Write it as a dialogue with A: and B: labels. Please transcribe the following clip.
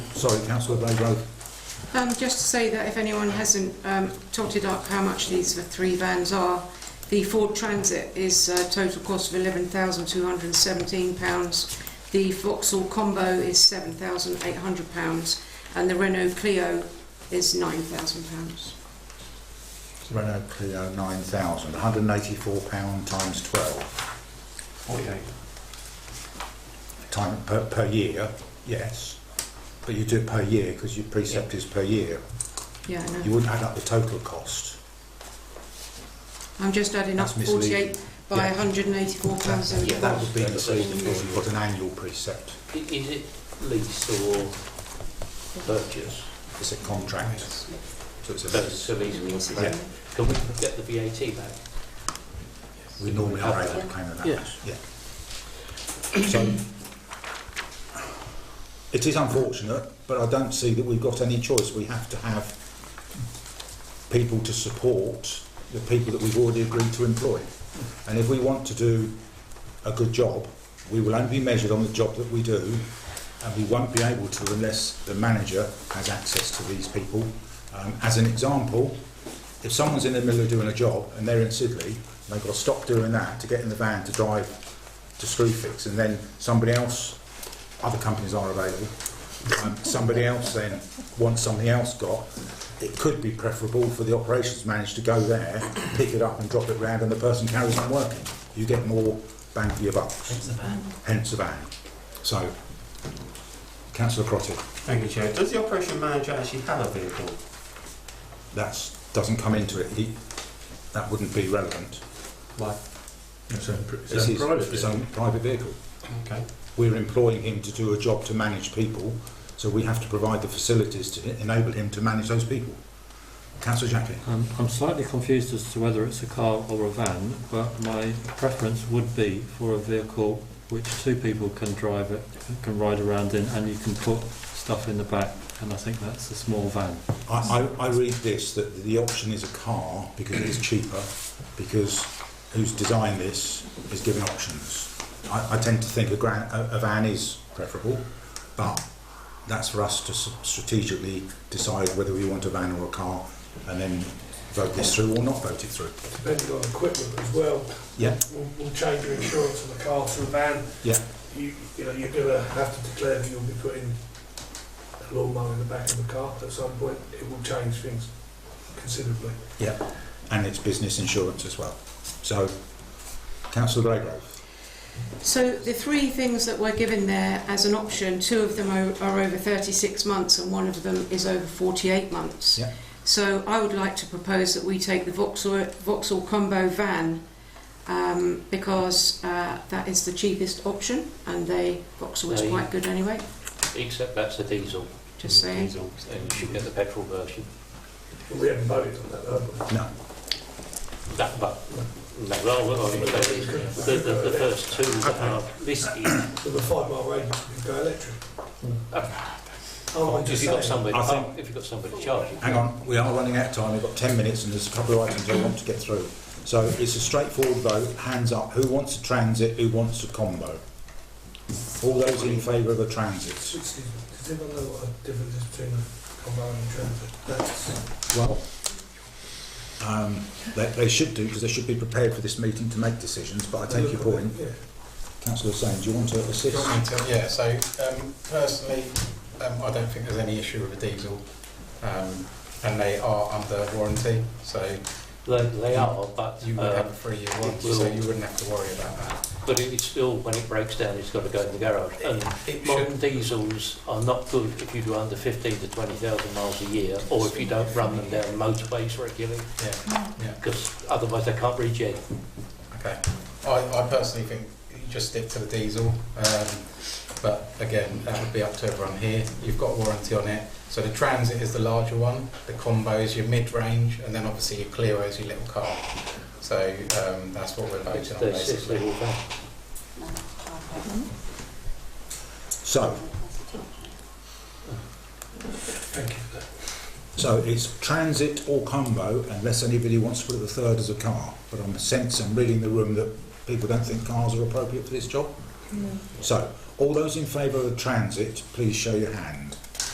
A: Sorry, councillor Blagrove.
B: Um, just to say that if anyone hasn't um, totted up how much these three vans are, the Ford Transit is a total cost of £11,217. The Vauxhall Combo is £7,800. And the Renault Clio is £9,000.
A: Renault Clio 9,000, £184 times 12.
C: Forty-eight.
A: Time per, per year, yes. But you do it per year because your precept is per year.
B: Yeah, I
A: You
B: know.
A: wouldn't add up the total cost.
B: I'm just adding up
A: That's misleading.
B: 48 by
A: Yeah.
B: £184.
A: Yeah, that would be
D: That's
A: misleading
D: the
A: if you
D: question.
A: put an annual precept.
D: I- Is it lease or purchase?
A: It's a contract, so it's a
D: That's
A: lease.
D: a lease.
B: Leases,
A: Yeah.
B: yeah.
D: Can we get the VAT back?
A: We normally are able to claim that.
D: Yes.
A: Yeah. So, it is unfortunate, but I don't see that we've got any choice. We have to have people to support the people that we've already agreed to employ. And if we want to do a good job, we will only be measured on the job that we do, and we won't be able to unless the manager has access to these people. Um, as an example, if someone's in the middle of doing a job and they're in Sidley, they've got to stop doing that to get in the van to drive to Screwfix, and then somebody else, other companies are available, um, somebody else then wants something else got. It could be preferable for the operations manager to go there, pick it up and drop it round, and the person carries on working. You get more bang for your buck. Hence the van. Hence the van. So, Councillor Crotty,
C: Thank you, Chair. Does the operation manager actually have a vehicle?
A: that doesn't come into it. He, that wouldn't be relevant.
C: Why?
E: It's own, pri- it's
A: It's
E: own
A: his,
E: private
A: his
E: vehicle.
A: own private vehicle.
C: Okay.
A: We're employing him to do a job to manage people, so we have to provide the facilities to enable him to manage those people. Councillor Jackley.
F: I'm, Um, I'm slightly confused as to whether it's a car or a van, but my preference would be for a vehicle which two people can drive it, can ride around in, and you can put stuff in the back, and I think that's a small van.
A: I, I, I read this that the option is a car because it is cheaper, because who's designed this is given options. I, I tend to think a, gran, a, a van is preferable, but that's for us to s- strategically decide whether we want a van or a car and then vote this through or not vote it through.
G: Depending on equipment as well.
A: Yeah.
G: We'll, we'll change your insurance on the car to a van.
A: Yeah.
G: You, you know, you're gonna have to declare that you'll be putting a lawnmower in the back of the car at some point. It will change things considerably.
A: and it's business insurance as well. So, Councillor Greygrove.
B: So the three things that were given there as an option, two of them are, are over 36 months and one of them is over 48 months.
A: Yeah.
B: So I would like to propose that we take the Vauxhall, Vauxhall Combo van um, because uh, that is the cheapest option and they Vauxhall is
D: They-
B: quite good anyway,
D: Except that's a diesel,
B: just saying.
C: Diesel.
D: and you should get the petrol version.
G: We haven't voted on that, have we?
A: No,
D: That, but, no, well, I mean, the, the, the first two that are listed,
G: So the five mile radius, we go electric. Oh, I'm
D: if
G: just
D: you've got
G: saying.
D: somebody,
A: I think-
D: if you've got somebody charging.
A: hang on, we are running out of time. We've got 10 minutes and there's a couple of items I want to get through. So, it's a straightforward vote. Hands up. Who wants a transit? Who wants a combo? All those in favour of a transit?
G: Excuse me, does anyone know what a difference is between a combine and transit? That's,
A: Well, um, they, they should do because they should be prepared for this meeting to make decisions. But I take your point.
G: Yeah.
A: Councillor Sain, do you want to assist?
E: Yeah, so um, personally, um, I don't think there's any issue with a diesel, um, and they are under warranty, so
D: They, they are, but,
E: you would have
D: uh,
E: a three-year
D: it
E: warranty, so
D: will-
E: you wouldn't have to worry about that.
D: but it's still, when it breaks down, it's got to go in the garage. And
E: Um, It
D: Modern
E: should,
D: diesels are not good if you do under 15 to 20,000 miles a year, or if you don't run them down motorways regularly,
E: yeah,
D: because otherwise they can't regen.
E: okay. I, I personally think you just stick to the diesel, um, but again, that would be up to everyone here. You've got a warranty on it. So the Transit is the larger one, the Combo is your mid-range, and then obviously your Clio is your little car. So um, that's what we're
D: It's
E: voting on
D: the six
E: basically.
D: litre van.
A: So,
G: Thank you. for that.
A: So it's transit or combo, unless anybody wants to put the third as a car. But I'm sensing, I'm reading the room, that people don't think cars are appropriate for this job. So, all those in favour of transit, please show your hand.